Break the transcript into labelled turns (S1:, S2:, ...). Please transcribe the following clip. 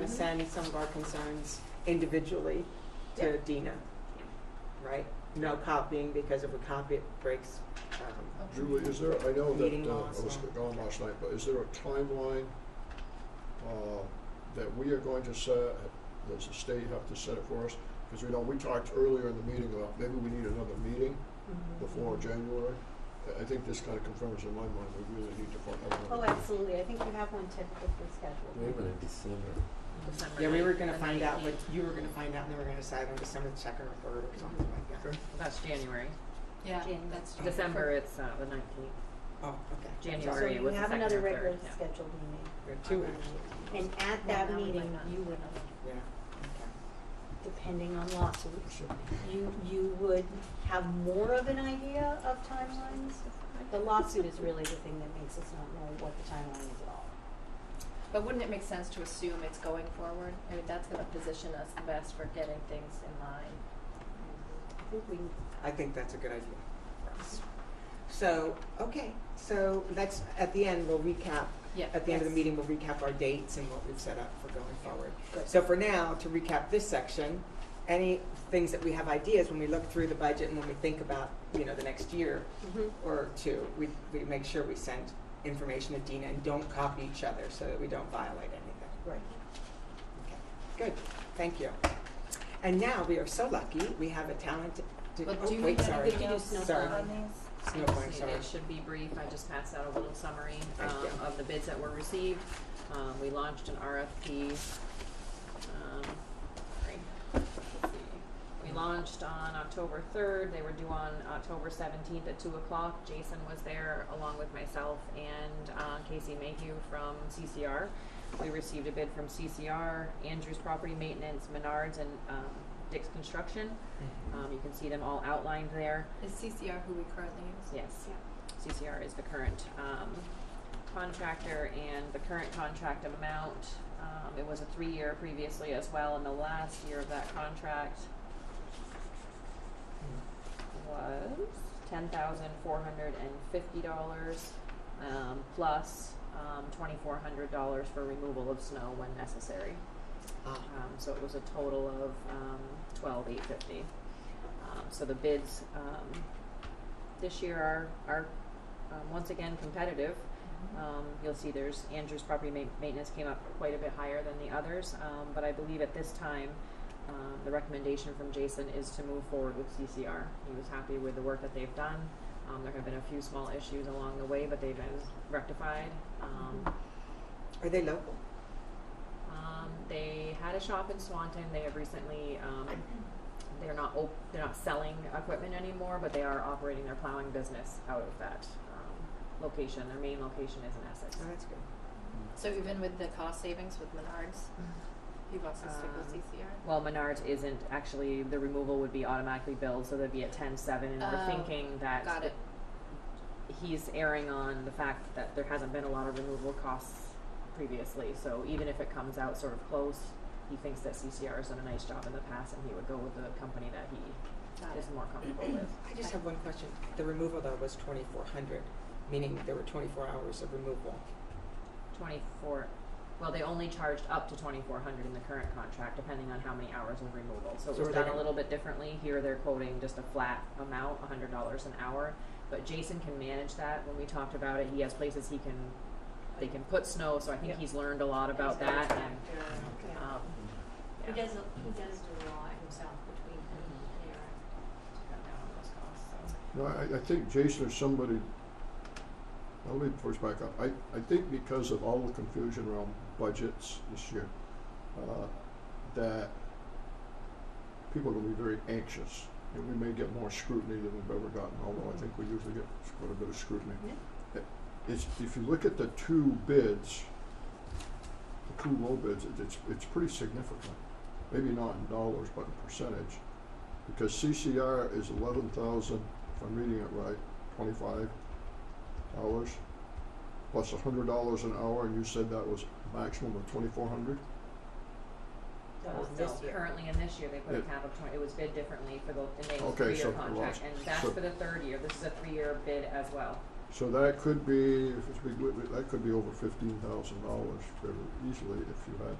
S1: to send some of our concerns individually to Dina, right? No copying, because if we copy it breaks, um,
S2: Julie, is there, I know that,
S1: Meeting
S2: uh,
S1: laws
S2: I was
S1: and-
S2: gone last night, but is there a timeline, uh, that we are going to set, does the state have to set it for us? Because we know, we talked earlier in the meeting about maybe we need another meeting before January. I- I think this kind of confirms in my mind, we really need to find out.
S3: Oh, absolutely, I think you have one tentatively
S2: Yeah.
S3: scheduled.
S4: Even in December.
S5: December
S1: yeah, we were
S5: ninth,
S1: gonna
S5: the
S1: find out what,
S5: 19th.
S1: you were gonna find out, and then we are gonna decide on December second or third or something like that.
S2: Okay,
S5: That's January.
S6: Yeah,
S3: Jan-
S6: that's true.
S5: December, it's uh, the nineteenth.
S1: Oh, okay.
S3: So
S5: January
S3: you
S5: was the
S3: have
S5: second
S3: another
S5: or third.
S3: regularly
S5: yeah.
S3: scheduled meeting, Um,
S1: We have two actually,
S3: and at
S6: Well,
S3: that
S6: now we might
S3: meeting,
S6: not.
S3: you would,
S1: yeah, okay.
S3: depending on lawsuits,
S2: so,
S3: you, you would have more of an idea of timelines. The lawsuit is really the thing that makes us not know what the timeline is at all.
S6: But wouldn't it make sense to assume it's going forward? I mean, that's gonna position us the best for getting things in line.
S3: I think we,
S1: I think that's a good idea for us. So, okay, so let's, at the end, we'll recap.
S6: Yeah,
S1: At the end of the
S6: yes.
S1: meeting, we'll recap our dates and what we've set up for going forward.
S3: Good.
S1: So for now, to recap this section, any things that we have ideas, when we look through the budget and when we think about, you know, the next year
S6: Mm-hmm.
S1: or two, we, we make sure we send information to Dina and don't copy each other so that we don't violate anything.
S3: right.
S1: Okay, Good, thank you. And now, we are so lucky, we have a talented,
S6: But
S1: oh,
S6: do you
S1: wait,
S6: need
S1: sorry, sorry.
S6: anything else on
S1: It's
S5: I
S1: no
S5: just
S1: point,
S5: need-
S1: sorry.
S5: It should be brief, I just passed out a little summary
S1: Thank
S5: um,
S1: you.
S5: of the bids that were received. Um, we launched an RFP, um, sorry, let's see. We launched on October third, they were due on October seventeenth at two o'clock. Jason was there along with myself and, uh, Casey Mayhew from CCR. We received a bid from CCR, Andrews Property Maintenance, Menards, and, um, Dick's Construction.
S1: Mm-hmm.
S5: Um, you can see them all outlined there.
S6: Is CCR who we currently use?
S5: Yes.
S6: Yeah.
S5: CCR is the current um, contractor and the current contract amount. Um, It was a three-year previously as well, and the last year of that contract was ten thousand four hundred and fifty dollars um, plus um, twenty-four hundred dollars for removal of snow when necessary.
S1: Ah.
S5: Um, so it was a total of um, twelve eight fifty. Um, so the bids um, this year are are um, once again competitive. Um, you'll see there's Andrew's property ma- maintenance came up quite a bit higher than the others, um, but I believe at this time. Um, the recommendation from Jason is to move forward with CCR. He was happy with the work that they've done. Um, there have been a few small issues along the way, but they've been rectified. Um,
S1: Are they local? Oh,
S5: um, they had a shop in Swanton. They have recently. Um, they're not op- they're not selling equipment anymore, but they are operating their plowing business out of that um, location. Their main location is in Essex.
S1: Oh, that's good.
S6: So even with the cost savings with Menards, you also stick with
S5: Um,
S6: CCR?
S5: Well, Menards isn't actually. The removal would be automatically billed, so they'd be at ten seven. And
S6: Oh,
S5: we're thinking that
S6: Got it.
S5: he's erring on the fact that there hasn't been a lot of removal costs previously. So even if it comes out sort of close, he thinks that CCR has done a nice job in the past, and he would go with the company that he
S6: Got it.
S5: is more comfortable with.
S1: I just have one question. The removal though was twenty-four hundred, meaning there were twenty-four hours of removal.
S5: Twenty-four, well, they only charged up to twenty-four hundred in the current contract, depending on how many hours of removal. So it
S1: So
S5: was
S1: we're
S5: done a
S1: looking-
S5: little bit differently. Here, they're quoting just a flat amount, a hundred dollars an hour. But Jason can manage that. When we talked about it, he has places he can, they can put snow, so I think
S6: Yep.
S5: he's learned a lot about that and,
S3: Yeah.
S5: um,
S3: He
S5: yeah.
S3: does, he does do a lot himself between him and Aaron.
S5: Cut down on those costs, so.
S2: No, I, I think Jason or somebody, now let me first back up. I, I think because of all the confusion around budgets this year, uh, that people are gonna be very anxious. And we may get more scrutiny than we've ever gotten, although I think we usually get quite a bit of scrutiny. It- It's, if you look at the two bids, the two low bids, it- it's, it's pretty significant. Maybe not in dollars, but in percentage because CCR is eleven thousand, if I'm reading it right, twenty-five hours, plus a hundred dollars an hour, and you said that was maximum of twenty-four hundred?
S5: That was
S1: Oh,
S5: this
S1: no.
S5: year. currently in this year, they put a
S2: Yeah.
S5: cap of twenty, it was bid differently for the, and they
S2: Okay,
S5: three-year
S2: so-
S5: contract,
S2: well,
S5: and that's
S2: so-
S5: for the third year, this is a three-year bid as well.
S2: So that could be, if it's big, that could be over fifteen thousand dollars fairly easily if you had